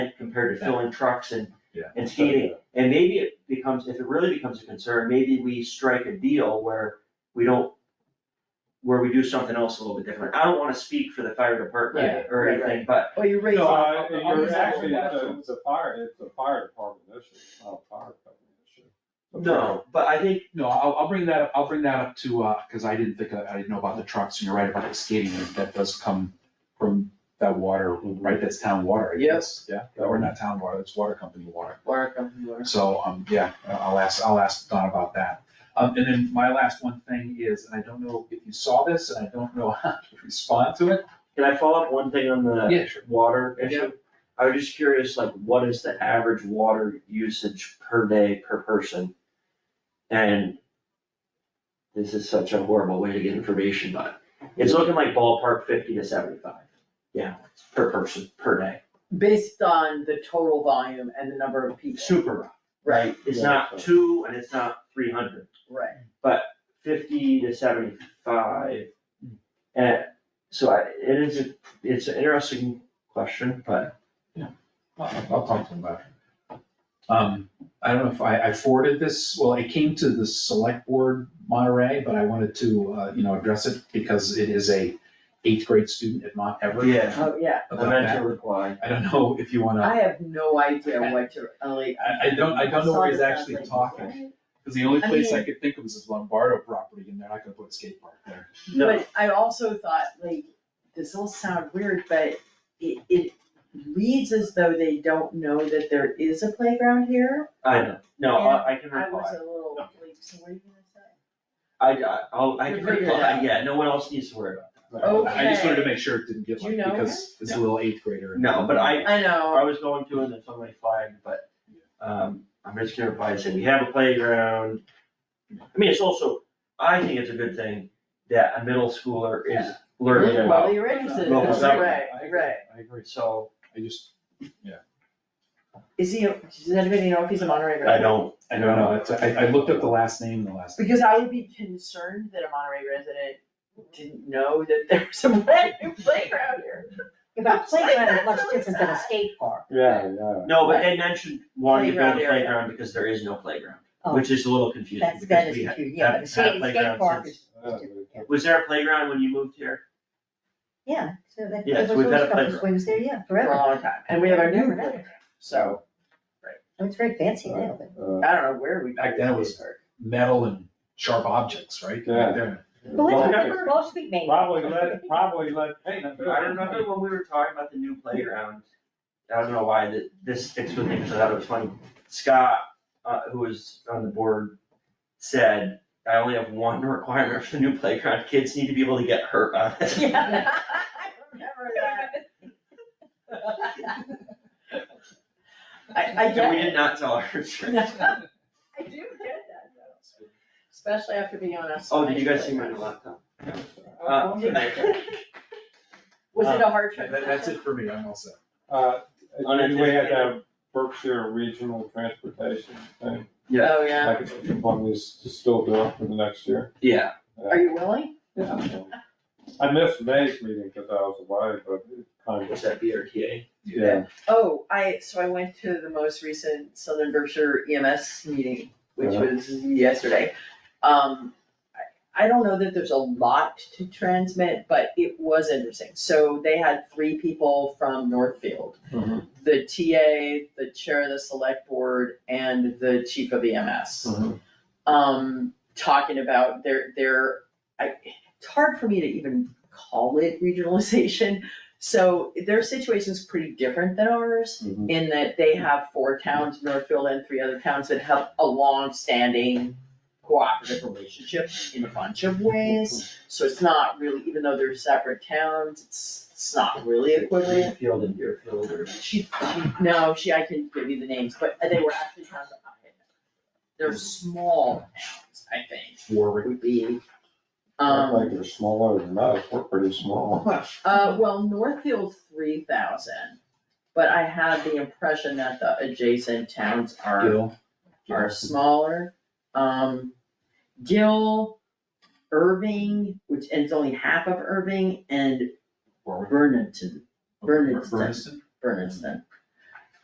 compared to filling trucks and, Yeah. and skating. And maybe it becomes, if it really becomes a concern, maybe we strike a deal where we don't, where we do something else a little bit different. I don't wanna speak for the fire department or Right, right. anything, but Well, Oh, you're raising. No, I, I'm just you're actually, asking it's a a, it's a fire, it's a fire department issue, it's not a fire company issue. no, but I think, No, I'll, I'll bring that up, I'll bring that up to, uh, cause I didn't think, I I didn't know about the trucks, and you're right about the skating, rink. that does come from that water, right, that's town water, I guess. Yeah, or not town water, it's water company water, Water company, water. so, um, yeah, I'll ask, I'll ask Don about that. Um, and then my last one thing is, and I don't know if you saw this, and I don't know how to respond to it. can I follow up one thing on the Yeah, sure. water Yeah. issue? I was just curious, like, what is the average water usage per day per person? And this is such a horrible way to get information, but it's looking like ballpark fifty to seventy-five gallons per person, per day. Based on the total volume and the number of people. Super, Right, It's not two and it's not three hundred, right. fifty to seventy-five. And so I, it is, a- it's an interesting question, but I'll I'll talk to him about it. Um, I don't know if I, I forwarded this, well, it came to the select board Monterey, but I wanted to, uh, you know, address it because it is a eighth grade student at Mont Everett. Yeah. Oh, yeah. I About meant to that. reply. I don't know if you wanna, I have no idea what to, like. I, I don't, I don't know where he's actually talking, because the only I place I mean- could think of is his Lombardo property, and they're not gonna put a skate park there. No. But I also thought, like, this will sound weird, but it, it reads as though they don't know that there is a playground here. I know, no, I I can I was reply. a little, like, Okay. so what are you gonna say? I, I, I'll- I can We'll figure it reply, out. yeah, no one else needs to worry about I just wanted to Okay. make sure it didn't get Do you like, know because it's a little eighth grader. it. No, but I, I I know, was going to and then somebody flagged, but, um, I'm just gonna reply and say, we have a playground. I mean, it's also, I think it's a good thing that a middle schooler is learning Well, about, you're interested, Well, that's exactly. right, right. I agree, so I just, Is he, does anybody know if he's a Monterey resident? I don't, I don't know, It's- I, I looked up the last name, the last. Because I would be concerned that a Monterey resident didn't know that there was a brand new playground here. But playground is much different than a skate park. Yeah, yeah. no, but they mentioned wanting to build a Playground area. playground because there is no playground, Oh. which is a little confusing. That's, because that is we ha- confusing, yeah, haven't but a had skate, skate playground park since- is, Uh, Was there a playground when you moved here? yeah, so that, Yes, there was we've had always a a couple playground. swings there, yeah, For a forever. long time, and we have our new Never playground, happened. so, I mean, it's very fancy now, but. uh, I don't know where we. Back then it was- metal and sharp objects, right? Yeah. They're- But Well, let's, remember- Wall Street made. it. Probably let, probably let, hey, But I remember when we were talking about the new playground, I don't know why that this sticks with me, because I thought it was funny. Scott, uh, who was on the board, said, I only have one requirement for the new playground, kids need to be able to get hurt on it. Yeah, I remember that. I, I And get we did it. not tell our insurance. I do get that though, especially after being on a. Oh, did you guys see my playground. new laptop? Uh, Was it a hard trip? That, that's it for me, I'm all set. uh, On a- we had that Berkshire Regional Transportation thing, Yeah. Oh, yeah. like, if one is to still do it for the next year. Yeah, Uh, Are you willing? yeah. I missed May's meeting because I was away, but it kind was of, that BRTA? yeah. Oh, I, so I went to the most recent Southern Berkshire EMS meeting, which Uh-huh. was yesterday. Um, I, I don't know that there's a lot to transmit, but it was interesting. So they had three people from Northfield. Mhm. The TA, the chair of the select board, and the chief of EMS um, talking about their, their, I, it's hard for me to even call it regionalization. So their situation's pretty different than ours Mhm. in that they have four towns, Northfield and three other towns that have a long-standing cooperative relationship in a bunch of ways. So it's not really, even though they're separate towns, it's, it's not really equivalent. Deerfield and Deerfield or. She, she, no, she, I can give you the names, but they were actually towns that I had. They're small towns, I think, Warwick, would be. Act Like Um, they're smaller than us, we're pretty small. uh, well, Northfield's three thousand, but I have the impression that the adjacent towns are, Gill, are smaller. Um, Gill, Irving, which, and it's only half of Irving, and Warwick. Vernonton, Berniston. Berniston? Berniston.